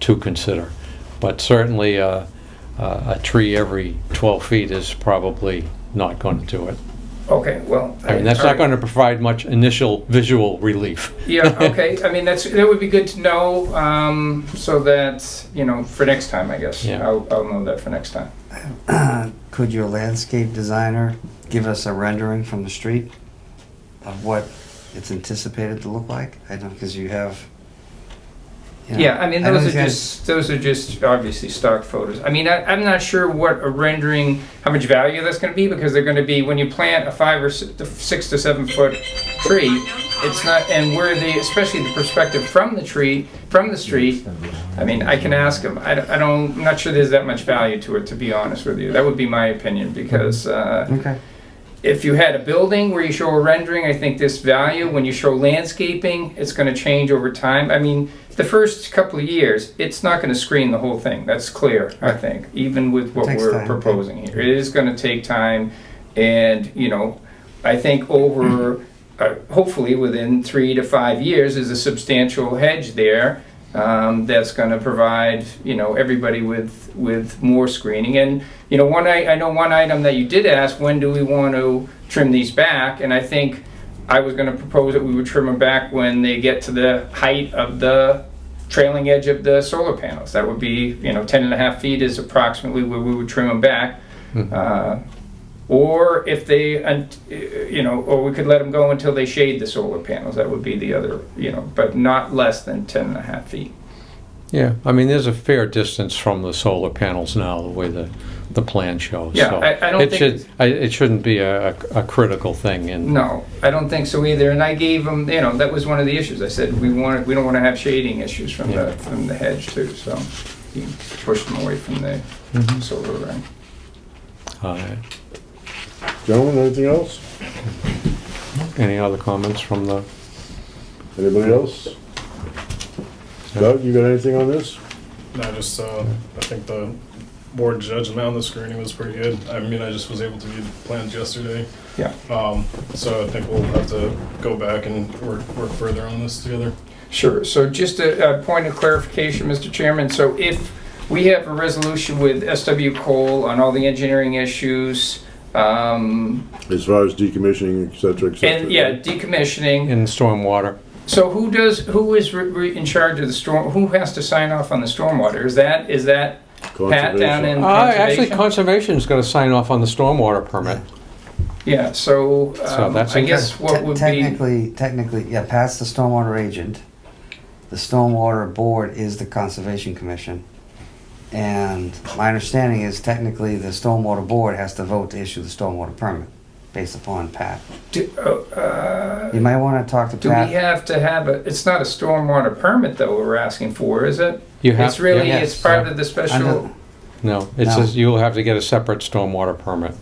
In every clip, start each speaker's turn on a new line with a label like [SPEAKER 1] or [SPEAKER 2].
[SPEAKER 1] to consider. But certainly, uh, uh, a tree every 12 feet is probably not going to do it.
[SPEAKER 2] Okay, well.
[SPEAKER 1] I mean, that's
[SPEAKER 2] all
[SPEAKER 1] not
[SPEAKER 2] right.
[SPEAKER 1] going to provide much initial visual relief.
[SPEAKER 2] Yeah, okay, I mean, that's, that would be good to know, um, so that, you know, for next time, I guess.
[SPEAKER 1] Yeah.
[SPEAKER 2] I'll, I'll know that for next time.
[SPEAKER 3] Could your landscape designer give us a rendering from the street of what it's anticipated to look like? I don't, because you have. you know,
[SPEAKER 2] Yeah, I mean,
[SPEAKER 3] know
[SPEAKER 2] those are
[SPEAKER 3] these guys-
[SPEAKER 2] just, those are just obviously stock photos. I mean, I, I'm not sure what a rendering, how much value that's gonna be, because they're gonna be, when you plant a five or si- to six to seven foot tree, it's not, and where the, especially the perspective from the tree, from the street, I mean, I can ask them, I don't- I don't, I'm not sure there's that much value to it, to be honest with you. That would be my opinion, because, uh,
[SPEAKER 3] Okay,
[SPEAKER 2] if you had a building where you show a rendering, I think this value, when you show landscaping, it's gonna change over time. I mean, the first couple of years, it's not gonna screen the whole thing, that's clear, I think, even with what
[SPEAKER 3] Takes
[SPEAKER 2] we're
[SPEAKER 3] time.
[SPEAKER 2] proposing here. It is gonna take time, and, you know, I think over, uh, hopefully within three to five years, is a substantial hedge there um, that's going to provide you know everybody with with more screening. And you know, one I, I know one item that you did ask: when do we want to trim these back? And I think I was going to propose that we would trim them back when they get to the height of the trailing edge of the solar panels. That would be you know 10 and a half feet is approximately where we would trim them back. Uh, or if they, and, uh, you know, or we could let them go until they shade the solar panels. That would be the other, you know, but not less than 10 and a half feet.
[SPEAKER 1] Yeah, I mean, there's a fair distance from the solar panels now, the way the, the plan shows.
[SPEAKER 2] Yeah,
[SPEAKER 1] so
[SPEAKER 2] I- I don't
[SPEAKER 1] it
[SPEAKER 2] think
[SPEAKER 1] should-
[SPEAKER 2] it's-
[SPEAKER 1] I- It shouldn't be a, a critical thing in.
[SPEAKER 2] No, I don't think so either. And I gave them, you know, that was one of the issues. I said, we want, we don't want to have shading issues from the,
[SPEAKER 1] Yeah.
[SPEAKER 2] from the hedge too, so he pushed them away from the
[SPEAKER 1] Mhm.
[SPEAKER 2] solar array.
[SPEAKER 1] All right.
[SPEAKER 4] Gentlemen, anything else?
[SPEAKER 1] Any other comments from the,
[SPEAKER 4] Anybody else? Doug, you got anything on this?
[SPEAKER 5] No, just uh, I think the board judgment on the screening was pretty good. I mean, I just was able to view the plans yesterday,
[SPEAKER 2] Yeah.
[SPEAKER 5] um, so I think we'll have to go back and work work further on this together.
[SPEAKER 2] Sure, so just a, a point of clarification, Mr. Chairman, so if we have a resolution with SW Cole on all the engineering issues, um,
[SPEAKER 4] As far as decommissioning, et cetera, et cetera.
[SPEAKER 2] and, yeah, decommissioning,
[SPEAKER 1] in stormwater?
[SPEAKER 2] so who does, who is re- re- in charge of the storm, who has to sign off on the stormwater? Is that, is that Pat down in
[SPEAKER 4] Conservation.
[SPEAKER 1] Uh, actually,
[SPEAKER 2] conservation?
[SPEAKER 1] conservation's gonna sign off on the stormwater permit.
[SPEAKER 2] Yeah, so,
[SPEAKER 1] So
[SPEAKER 2] um,
[SPEAKER 1] that's
[SPEAKER 2] I
[SPEAKER 1] okay.
[SPEAKER 2] guess what
[SPEAKER 3] Te-
[SPEAKER 2] would be,
[SPEAKER 3] Technically, technically, yeah, Pat's the stormwater agent. The stormwater board is the conservation commission. And my understanding is technically the stormwater board has to vote to issue the stormwater permit based upon Pat.
[SPEAKER 2] do oh, uh,
[SPEAKER 3] You might want to talk to
[SPEAKER 2] do we
[SPEAKER 3] Pat.
[SPEAKER 2] have to have a, it's not a stormwater permit though we're asking for, is it?
[SPEAKER 1] You have.
[SPEAKER 2] It's really,
[SPEAKER 1] yeah,
[SPEAKER 3] yeah.
[SPEAKER 2] it's part of the
[SPEAKER 3] Under-
[SPEAKER 2] special,
[SPEAKER 1] No, it
[SPEAKER 3] No.
[SPEAKER 1] says you'll have to get a separate stormwater permit.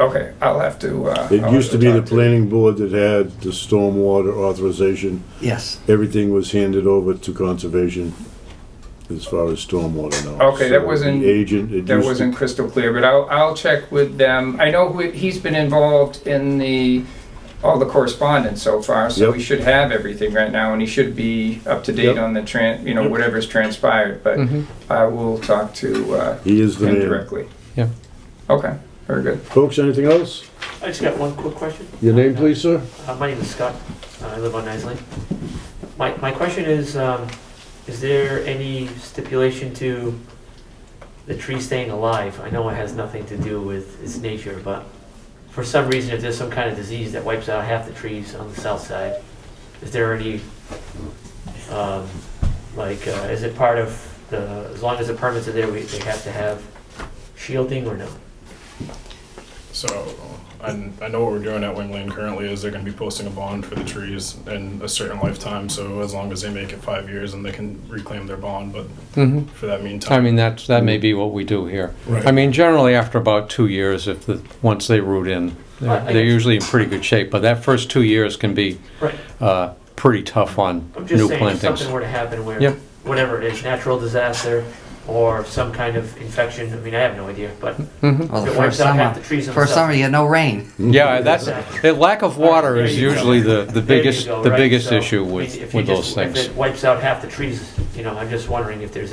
[SPEAKER 2] okay, I'll have to, uh.
[SPEAKER 4] It
[SPEAKER 2] I'll
[SPEAKER 4] used Oh, to
[SPEAKER 2] have
[SPEAKER 4] be the
[SPEAKER 2] talk
[SPEAKER 4] planning board that had the stormwater authorization.
[SPEAKER 3] Yes,
[SPEAKER 4] Everything was handed over to conservation as far as stormwater now.
[SPEAKER 2] Okay, that
[SPEAKER 4] So
[SPEAKER 2] wasn't-
[SPEAKER 4] The agent, it
[SPEAKER 2] That
[SPEAKER 4] used to
[SPEAKER 2] wasn't crystal clear, but I'll, I'll check with them. I know who- he's been involved in the, all the correspondence so far, so
[SPEAKER 4] Yep.
[SPEAKER 2] we should have everything right now, and he should be up to date
[SPEAKER 4] Yep.
[SPEAKER 2] on the tran, you know,
[SPEAKER 4] Yep. Mm-hmm.
[SPEAKER 2] whatever's transpired, but
[SPEAKER 1] Mhm.
[SPEAKER 2] I will talk to, uh,
[SPEAKER 4] He is the
[SPEAKER 2] him
[SPEAKER 4] man.
[SPEAKER 2] directly.
[SPEAKER 1] Yeah.
[SPEAKER 2] Okay, very good.
[SPEAKER 4] Folks, anything else?
[SPEAKER 6] I just got one quick question.
[SPEAKER 4] Your name, please, sir?
[SPEAKER 6] Uh, my name is Scott. Uh, I live on Nice Lane. My, my question is, um, is there any stipulation to the tree staying alive? I know it has nothing to do with its nature, but for some reason, if there's some kind of disease that wipes out half the trees on the south side, is there any, um, like, uh, is it part of the, as long as the permits are there, we, they have to have shielding or no?
[SPEAKER 5] So I, I know what we're doing at Wing Lane currently is they're going to be posting a bond for the trees in a certain lifetime. So as long as they make it five years, and they can reclaim their bond. But
[SPEAKER 1] hmm
[SPEAKER 5] for that meantime,
[SPEAKER 1] I mean, that's, that may be what we do here.
[SPEAKER 5] Right.
[SPEAKER 1] I mean, generally after about two years, if the, once they root in,
[SPEAKER 6] Right,
[SPEAKER 1] they're,
[SPEAKER 6] I
[SPEAKER 1] they're
[SPEAKER 6] guess.
[SPEAKER 1] usually in pretty good shape, but that first two years can be,
[SPEAKER 6] Right.
[SPEAKER 1] uh, pretty tough on
[SPEAKER 6] I'm just
[SPEAKER 1] new
[SPEAKER 6] saying, if
[SPEAKER 1] plantings.
[SPEAKER 6] something were to happen where,
[SPEAKER 1] Yep.
[SPEAKER 6] whatever it is, natural disaster or some kind of infection, I mean, I have no idea, but
[SPEAKER 1] Mhm.
[SPEAKER 3] well, the
[SPEAKER 6] It
[SPEAKER 3] first
[SPEAKER 6] wipes out half
[SPEAKER 3] summer,
[SPEAKER 6] the trees on the
[SPEAKER 3] first
[SPEAKER 6] south.
[SPEAKER 3] summer you get no rain.
[SPEAKER 1] Yeah, that's, the lack of water
[SPEAKER 6] There
[SPEAKER 1] is
[SPEAKER 6] you go.
[SPEAKER 1] usually the, the
[SPEAKER 6] there you
[SPEAKER 1] biggest,
[SPEAKER 6] go,
[SPEAKER 1] the
[SPEAKER 6] right?
[SPEAKER 1] biggest
[SPEAKER 6] So,
[SPEAKER 1] issue
[SPEAKER 6] I mean, if
[SPEAKER 1] with,
[SPEAKER 6] you
[SPEAKER 1] with those
[SPEAKER 6] just-
[SPEAKER 1] things.
[SPEAKER 6] If it wipes out half the trees, you know, I'm just wondering if there's